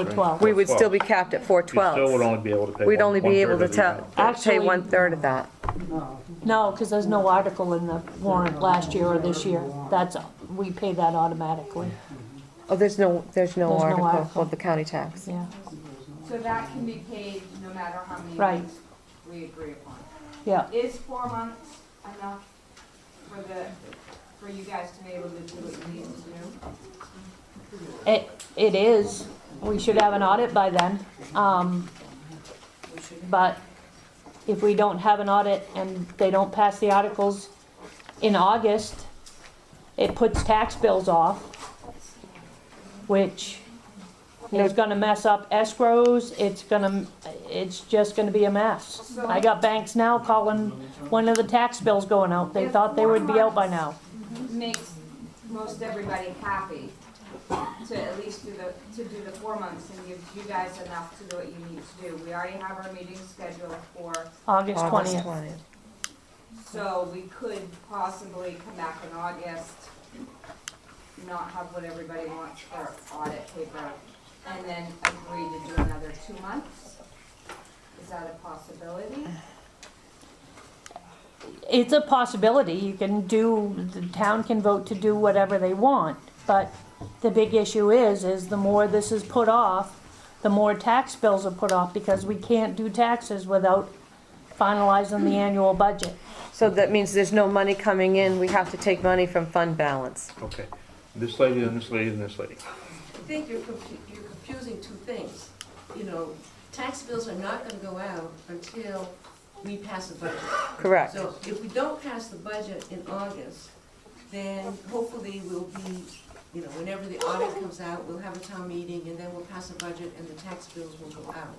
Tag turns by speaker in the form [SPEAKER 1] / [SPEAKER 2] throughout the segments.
[SPEAKER 1] 412.
[SPEAKER 2] We would still be capped at
[SPEAKER 3] You still would
[SPEAKER 2] 412.
[SPEAKER 3] only be able to pay.
[SPEAKER 2] We'd
[SPEAKER 3] one-
[SPEAKER 2] only be
[SPEAKER 3] one-third
[SPEAKER 2] able to
[SPEAKER 3] of the
[SPEAKER 2] tell,
[SPEAKER 3] amount.
[SPEAKER 2] pay
[SPEAKER 1] Actually-
[SPEAKER 2] one-third of that.
[SPEAKER 1] No, because there's no article in the warrant last year or this year. That's, we pay that automatically,
[SPEAKER 2] Oh, there's no, there's no
[SPEAKER 1] There's no
[SPEAKER 2] article
[SPEAKER 1] article.
[SPEAKER 2] for the county tax.
[SPEAKER 1] yeah,
[SPEAKER 4] So that can be paid no matter how many
[SPEAKER 1] Right.
[SPEAKER 4] months we agree upon.
[SPEAKER 1] yeah.
[SPEAKER 4] Is four months enough for the, for you guys to be able to do what you need to do?
[SPEAKER 1] It, it is, we should have an audit by then. Um, But if we don't have an audit and they don't pass the articles in August, it puts tax bills off, which is gonna mess up escrows, it's gonna, it's just gonna be a mess. I got banks now calling, when are the tax bills going out? They thought they would be out by now.
[SPEAKER 4] Makes most everybody happy to at least do the, to do the four months and gives you guys enough to do what you need to do. We already have our meeting scheduled for,
[SPEAKER 1] August
[SPEAKER 2] August
[SPEAKER 1] twentieth.
[SPEAKER 2] 20th.
[SPEAKER 4] so we could possibly come back in August, not have what everybody wants for audit paper, and then agree to do another two months? Is that a possibility?
[SPEAKER 1] it's a possibility, you can do, the town can vote to do whatever they want, but the big issue is, is the more this is put off, the more tax bills are put off, because we can't do taxes without finalizing the annual budget.
[SPEAKER 2] So that means there's no money coming in, we have to take money from fund balance.
[SPEAKER 3] Okay, this lady and this lady and this lady.
[SPEAKER 5] I think you're confu- you're confusing two things. You know, tax bills are not gonna go out until we pass the budget.
[SPEAKER 2] Correct.
[SPEAKER 5] So if we don't pass the budget in August, then hopefully we'll be, you know, whenever the audit comes out, we'll have a town meeting, and then we'll pass a budget, and the tax bills will go out.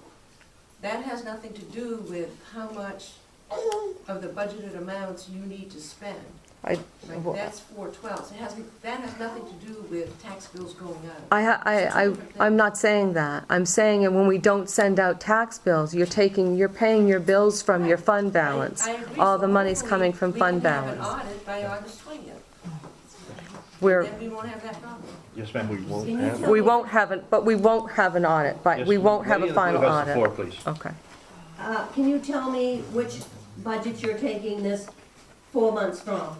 [SPEAKER 5] That has nothing to do with how much of the budgeted amounts you need to spend.
[SPEAKER 2] I,
[SPEAKER 5] Like, that's four twelve, it has, that has nothing to do with tax bills going out.
[SPEAKER 2] I, ha- I, I, I'm not saying that. I'm saying that when we don't send out tax bills, you're taking, you're paying your bills from your fund balance.
[SPEAKER 5] I- I agree,
[SPEAKER 2] All
[SPEAKER 5] so
[SPEAKER 2] the money's
[SPEAKER 5] hopefully
[SPEAKER 2] coming from fund
[SPEAKER 5] We
[SPEAKER 2] balance.
[SPEAKER 5] can have an audit by August 20th,
[SPEAKER 2] We're,
[SPEAKER 5] then we won't have that problem.
[SPEAKER 3] Yes, ma'am, we won't have.
[SPEAKER 2] we won't have an, but we won't have an audit, but
[SPEAKER 3] Yes,
[SPEAKER 2] we won't have
[SPEAKER 3] lady
[SPEAKER 2] a
[SPEAKER 3] in the blue
[SPEAKER 2] final
[SPEAKER 3] has the
[SPEAKER 2] audit.
[SPEAKER 3] floor, please.
[SPEAKER 2] Okay.
[SPEAKER 6] Uh, Can you tell me which budget you're taking this four months from?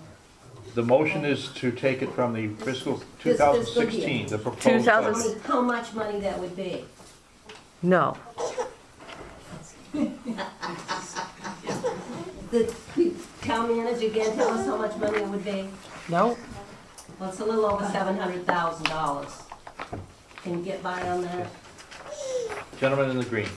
[SPEAKER 3] The motion is to take it from the fiscal
[SPEAKER 6] This fiscal year.
[SPEAKER 3] 2016, the proposed.
[SPEAKER 2] 2000
[SPEAKER 6] Tell
[SPEAKER 3] budget.
[SPEAKER 6] me how much money that would be.
[SPEAKER 2] No.
[SPEAKER 6] The town manager again, tell us how much money it would be.
[SPEAKER 2] No.
[SPEAKER 6] Well, it's a little over seven hundred thousand dollars. Can you get by on that?
[SPEAKER 3] Gentleman in the green.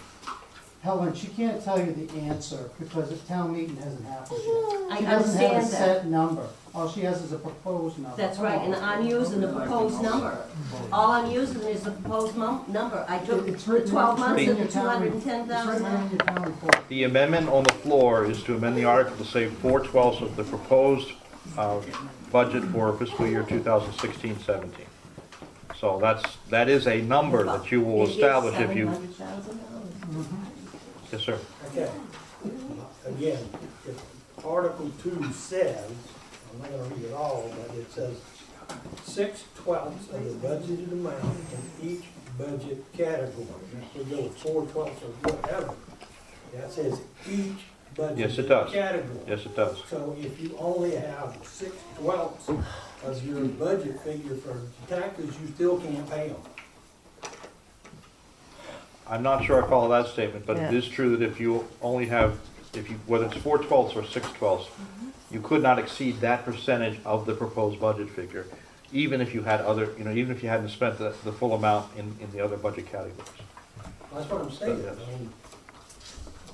[SPEAKER 7] Helen, she can't tell you the answer because the town meeting hasn't happened yet.
[SPEAKER 6] I
[SPEAKER 7] She doesn't have a
[SPEAKER 6] understand that.
[SPEAKER 7] set number. All she has is a proposed number.
[SPEAKER 6] That's right, and I'm using the proposed number. All I'm using is the proposed mum, number. I took
[SPEAKER 7] It's
[SPEAKER 6] the
[SPEAKER 7] written-
[SPEAKER 6] twelve
[SPEAKER 7] it's
[SPEAKER 6] months
[SPEAKER 7] written
[SPEAKER 6] of
[SPEAKER 7] in
[SPEAKER 6] the
[SPEAKER 7] your
[SPEAKER 6] two
[SPEAKER 7] town-
[SPEAKER 6] hundred and ten
[SPEAKER 7] It's written in
[SPEAKER 6] thousand.
[SPEAKER 7] your town report.
[SPEAKER 3] The amendment on the floor is to amend the article to say four twelfths of the proposed uh, budget for fiscal year 2016-17. So that's, that is a number that you will establish if you,
[SPEAKER 6] Seven hundred thousand dollars.
[SPEAKER 3] yes, sir.
[SPEAKER 8] Okay, again, if Article Two says, I'm not gonna read it all, but it says six twelfths of the budgeted amount in each budget category. If we go with four twelfths or whatever, that says each budget.
[SPEAKER 3] Yes, it does.
[SPEAKER 8] Category.
[SPEAKER 3] Yes, it does.
[SPEAKER 8] So if you only have six twelfths of your budget figure for taxes, you still can't pay them.
[SPEAKER 3] I'm not sure I follow that statement, but it
[SPEAKER 2] Yeah.
[SPEAKER 3] is true that if you only have, if you, whether it's four twelfths or six twelfths, you could not exceed that percentage of the proposed budget figure, even if you had other, you know, even if you hadn't spent the, the full amount in, in the other budget categories.
[SPEAKER 8] That's what I'm saying, I mean,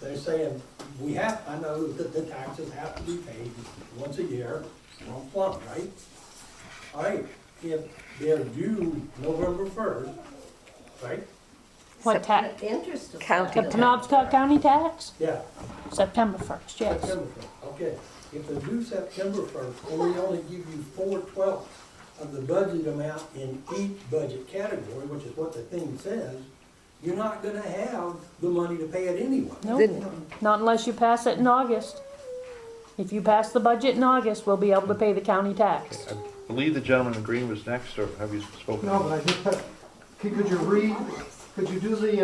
[SPEAKER 8] they're saying, we have, I know that the taxes have to be paid once a year, one plump, right? All right, if they're due November first, right,
[SPEAKER 1] What tax,
[SPEAKER 6] The interest of that.
[SPEAKER 2] County
[SPEAKER 1] the Penobscot County tax?
[SPEAKER 8] yeah,
[SPEAKER 1] September first, yes.
[SPEAKER 8] September first, okay. If they're due September first, and we only give you four twelfths of the budget amount in each budget category, which is what the thing says, you're not gonna have the money to pay it anyway.
[SPEAKER 1] Nope, not unless you pass it in August. If you pass the budget in August, we'll be able to pay the county tax.
[SPEAKER 3] I believe the gentleman in green was next, or have you spoken?
[SPEAKER 7] No, but I just, put- could could you read Could you do the